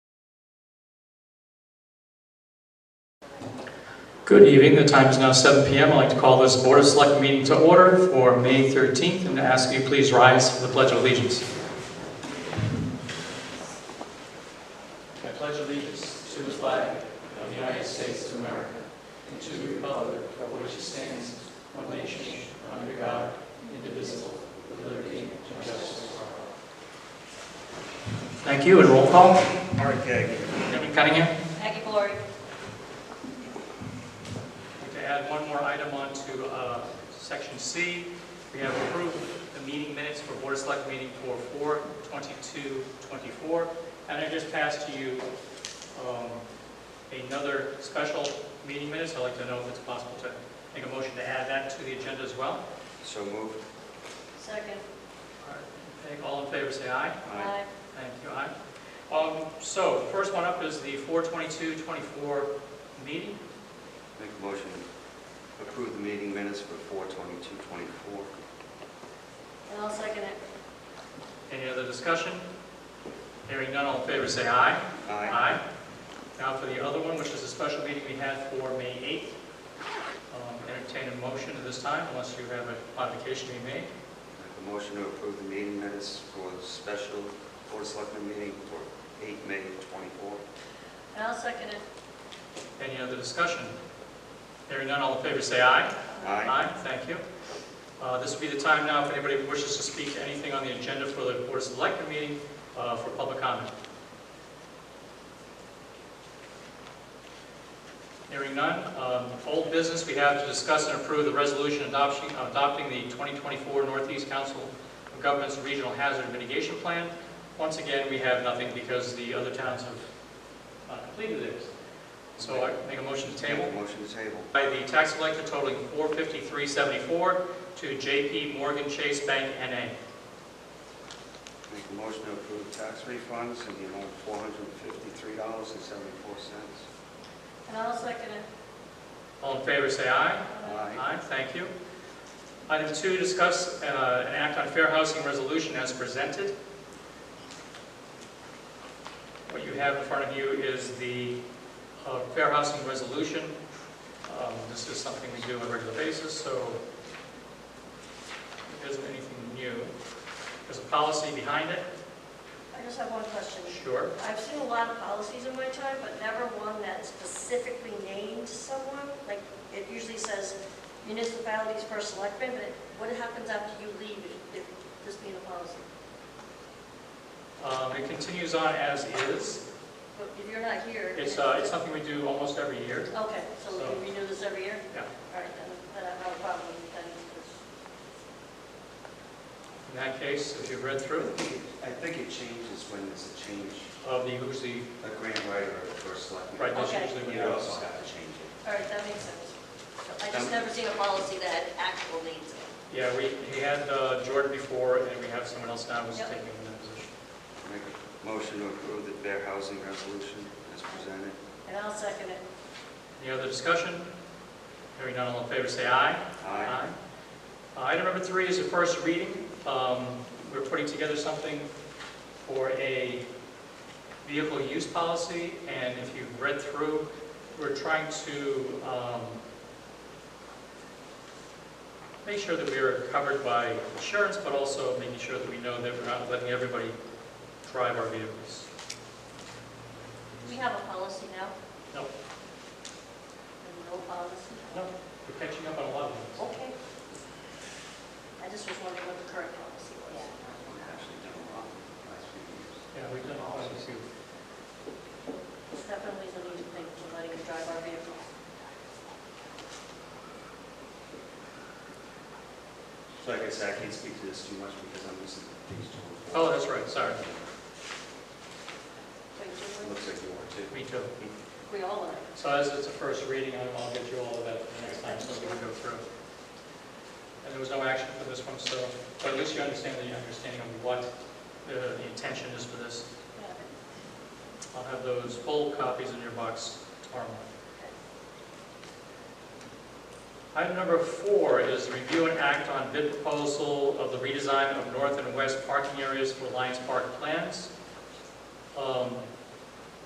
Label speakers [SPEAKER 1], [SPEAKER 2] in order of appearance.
[SPEAKER 1] Good evening, the time is now 7 PM. I'd like to call this Board of Select meeting to order for May 13th and to ask you please rise for the Pledge of Allegiance. I pledge allegiance to the flag of the United States of America and to the republic for which it stands, one nation, under God, indivisible, with liberty and justice for all. Thank you, and roll call.
[SPEAKER 2] Mark Gagnon.
[SPEAKER 1] Kevin Cunningham.
[SPEAKER 3] Aggie Glory.
[SPEAKER 1] To add one more item on to uh, section C, we have approved the meeting minutes for Board of Select meeting for 4/22/24. And I just passed to you um, another special meeting minutes. I'd like to know if it's possible to make a motion to add that to the agenda as well.
[SPEAKER 2] So moved.
[SPEAKER 3] Second.
[SPEAKER 1] Okay, All in favor, say aye.
[SPEAKER 3] Aye.
[SPEAKER 1] Thank you, aye. Um, So first one up is the 4/22/24 meeting.
[SPEAKER 2] Make a motion, to approve the meeting minutes for four twenty-two twenty-four.
[SPEAKER 3] And I'll second it.
[SPEAKER 1] Any other discussion? Hearing none, all in favor, say aye.
[SPEAKER 2] Aye.
[SPEAKER 1] Aye. Now for the other one, which is a special meeting we had for May 8th. Um, Entertain a motion at this time unless you have a modification to be made.
[SPEAKER 2] Make a motion to approve the meeting minutes for the special Board of Selectmen meeting for eight May twenty-four.
[SPEAKER 3] And I'll second it.
[SPEAKER 1] Any other discussion? Hearing none, all in favor, say aye.
[SPEAKER 2] Aye.
[SPEAKER 1] thank you. Uh, This would be the time now if anybody wishes to speak to anything on the agenda for the Board of Selectmen meeting uh, for public comment. Hearing none. Um, Old business, we have to discuss and approve the resolution adoption- adopting the 2024 Northeast Council of Governments Regional Hazard Mitigation Plan. Once again, we have nothing because the other towns have uh, completed theirs. So I make a motion to table
[SPEAKER 2] Make a Motion to table.
[SPEAKER 1] by the tax collector totaling $453.74 to JP Morgan Chase Bank NA.
[SPEAKER 2] Make a motion to approve tax refunds in the amount of four hundred and fifty-three dollars and seventy-four cents.
[SPEAKER 3] And I'll second it.
[SPEAKER 1] All in favor, say aye.
[SPEAKER 2] Aye.
[SPEAKER 1] thank you. Item two, discuss uh, an act on fair housing resolution as presented. What you have in front of you is the uh, fair housing resolution. Um, This is something we do on a regular basis, so it isn't anything new. There's a policy behind it,
[SPEAKER 3] I just have one question.
[SPEAKER 1] sure.
[SPEAKER 3] I've seen a lot of policies in my time, but never one that specifically named someone. Like, it usually says municipalities for selectmen, but what happens after you leave if- if this being a policy?
[SPEAKER 1] Um, It continues on as is.
[SPEAKER 3] But if you're not here.
[SPEAKER 1] It's, uh, it's something we do almost every year.
[SPEAKER 3] Okay, so we can renew this every year?
[SPEAKER 1] Yeah.
[SPEAKER 3] All right, then, then I have no problem with that.
[SPEAKER 1] In that case, if you've read through,
[SPEAKER 2] I think it changes when there's a change,
[SPEAKER 1] of the, who's the,
[SPEAKER 2] a grant writer or a selectman.
[SPEAKER 1] right, that's
[SPEAKER 3] Okay.
[SPEAKER 1] usually what
[SPEAKER 2] You
[SPEAKER 1] happens.
[SPEAKER 2] also have to change it.
[SPEAKER 3] All right, that makes sense. I just never seen a policy that had actual names in it.
[SPEAKER 1] Yeah, we, we had uh, Jordan before, and we have someone else now who's
[SPEAKER 3] Yep.
[SPEAKER 1] taking that position.
[SPEAKER 2] Make a motion to approve the fair housing resolution as presented.
[SPEAKER 3] And I'll second it.
[SPEAKER 1] Any other discussion? Hearing none, all in favor, say aye.
[SPEAKER 2] Aye.
[SPEAKER 1] Uh, Item number three is the first reading. Um, We're putting together something for a vehicle use policy, and if you've read through, we're trying to um, make sure that we are covered by insurance, but also making sure that we know that we're not letting everybody drive our vehicles.
[SPEAKER 3] We have a policy now?
[SPEAKER 1] No.
[SPEAKER 3] And No policy?
[SPEAKER 1] No, we're catching up on a lot of things.
[SPEAKER 3] Okay. I just was wondering what the current policy was.
[SPEAKER 2] We've actually done a lot in the last few years.
[SPEAKER 1] Yeah, we've done all of this.
[SPEAKER 3] It's definitely the new thing for letting you drive our vehicle.
[SPEAKER 2] So like I said, I can't speak to this too much because I'm missing things to
[SPEAKER 1] Oh, that's right, sorry.
[SPEAKER 3] Wait,
[SPEAKER 2] It
[SPEAKER 3] do
[SPEAKER 2] looks like you are too.
[SPEAKER 1] Me too.
[SPEAKER 3] we, we all are.
[SPEAKER 1] So as it's a first reading, I'll I'll get you all of that the next time, so we can go through. And there was no action for this one, so, but at least you understand the understanding of what uh, the intention is for this. I'll have those full copies in your box tomorrow morning. Item number four is review and act on bid proposal of the redesign of north and west parking areas for Lions Park plans. Um,